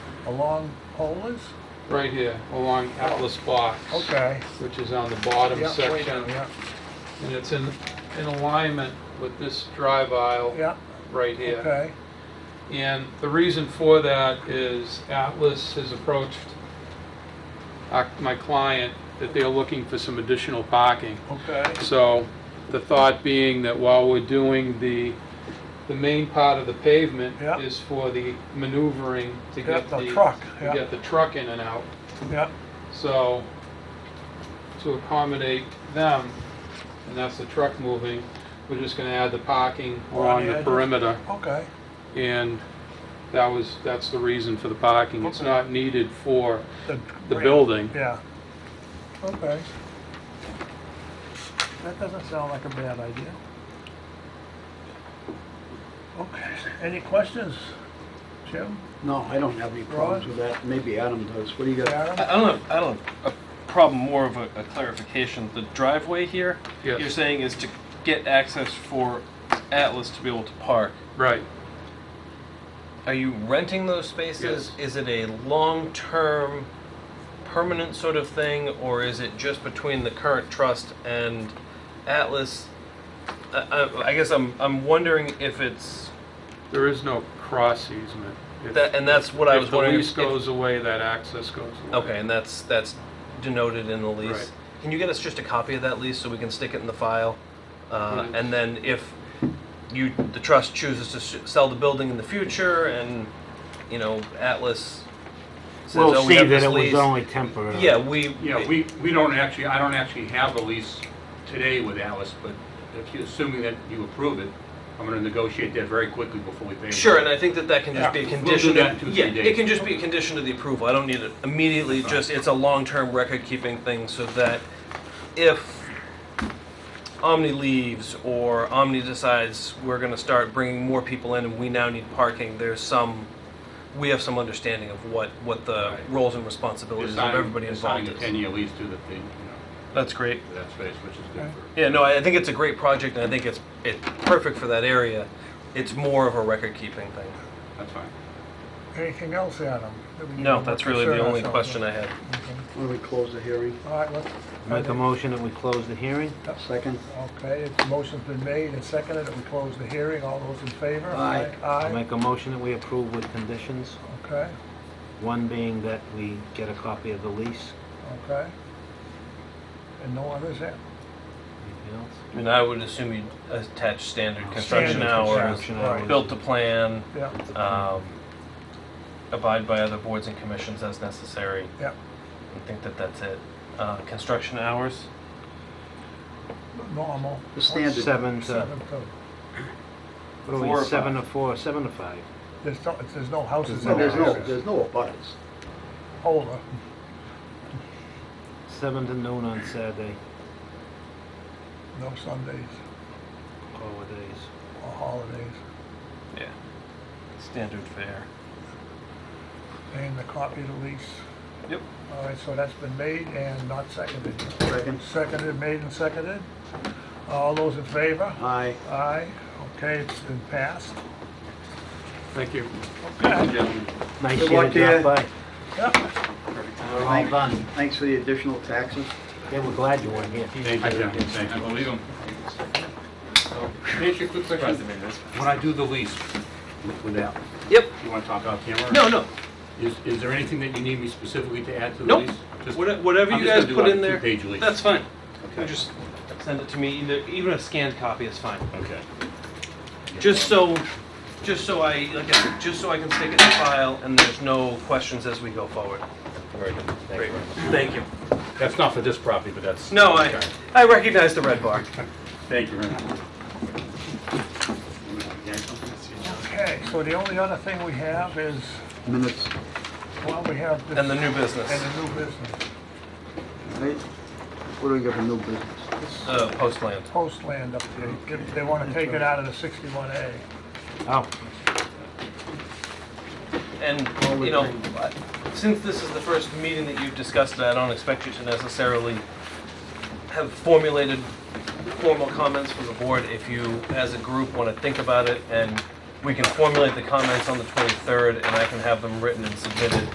along Polis? right here, along Atlas Box. Okay. Which is on the bottom Yeah, way section. down, Yeah, And it's in, in alignment with this drive aisle. yeah, Right here. okay, And the reason for that is Atlas has approached our- my client that they're looking for some additional parking. okay. So the thought being that while we're doing the, the main part of the pavement Yeah. is for the maneuvering to Yeah, get the the. truck, yeah. To get the truck in and out. Yeah, So to accommodate them, and that's the truck moving, we're just gonna add the parking On along the the edges. perimeter. okay, And that was, that's the reason for the parking. It's Okay. not needed for the. the building. Yeah, okay. That doesn't sound like a bad idea. Okay, any questions? Jim, No, I don't have any problems with that. Maybe Adam does. What do you got? Adam? I I don't have, I don't have a problem, more of a a clarification. The driveway here, Yes. you're saying is to get access for Atlas to be able to park. Right. Are you renting those spaces? Is it a long-term, permanent sort of thing, or is it just between the current trust and Atlas? I, I, I guess I'm, I'm wondering if it's, There is no cross easement. If- that, and that's what I was wondering. If if- the lease goes away, that access goes away. Okay, and that's, that's denoted in the Right. lease. Can you get us just a copy of that lease so we can stick it in the file? Uh, Right. And then if you, the trust chooses to s- sell the building in the future and, you know, Atlas says, We'll oh, we see have that this it was lease. only temporary. Yeah, we. Yeah, we, we don't actually, I don't actually have a lease today with Alice, but if you, assuming that you approve it, I'm gonna negotiate that very quickly before we pay. them. Sure, and I think that that can just be a We'll do condition. that in two, three Yeah, days. it can just be a condition to the approval. I don't need it immediately, just, it's a long-term record-keeping thing so that if Omni leaves or Omni decides we're gonna start bringing more people in and we now need parking, there's some, we have some understanding of what, what the Right. roles and responsibilities of They're signing- everybody they're involved Signing a is. ten-year lease to the thing, you know, That's great. for that space, which is good for. Yeah, no, I I think it's a great project and I think it's, it's perfect for that area. It's more of a record-keeping thing. That's fine. Anything else, Adam? that we No, need to that's really the concern only ourselves question with? I had. Okay. Why don't we close the hearing? All right, let's. Make a motion that we close the hearing? Second? Okay, the motion's been made and seconded, and we close the hearing. All those in favor? Aye. I'll Aye, Make a motion that we approve with conditions, okay, one being that we get a copy of the lease. okay. And no others there? Anything else? I mean, I would assume you'd attach standard construction Standard hours, construction hours. built to plan, Yeah, um, abide by other boards and commissions as necessary. yeah. I think that that's it. Uh, construction hours? Normal. The standard. Seven to, uh, Seven to- what are Four or we, seven to four, seven to five? There's no, there's no houses No, in there's no, there. there's no abutters. Older. Seven to noon on Saturday, No Sundays holidays. or holidays. Yeah. Standard fare. And the copy of the lease. Yep. All right, so that's been made and not seconded. Second? Seconded, made and seconded. All those in favor? Aye. Aye. Okay, it's been passed. Thank you. Okay. Gentlemen. Nice Good year luck to to you. drop by. Yeah. All done. Thanks for the additional taxes. Yeah, we're glad you weren't here. Thank you, gentlemen, thank you. believe him. Can I ask you a quick question? When I do the lease with- with Alice, Yep, you wanna talk out camera? no, no, Is, is there anything that you need me specifically to add to the Nope. lease? Just- What- whatever I'm you just gonna guys do put like a in there, Two-page lease. that's fine. Okay. Just send it to me, either, even a scanned copy is fine. Okay. Just so, just so I, like, I said, just so I can stick it in the file and there's no questions as we go forward. Very good. Great, thank you. That's not for this property, but that's. No, I, I recognize the red bar. Thank you very much. Okay, so the only other thing we have is, Minutes, well, we have this. And the new business, And the new business, right? What do we got for new business? uh, post land. post land update. If They want to take it out of the sixty-one A. Oh, And, you know, since this is the first meeting that you've discussed it, I don't expect you to necessarily have formulated formal comments for the board. If you, as a group, want to think about it and we can formulate the comments on the 23rd and I can have them written and submitted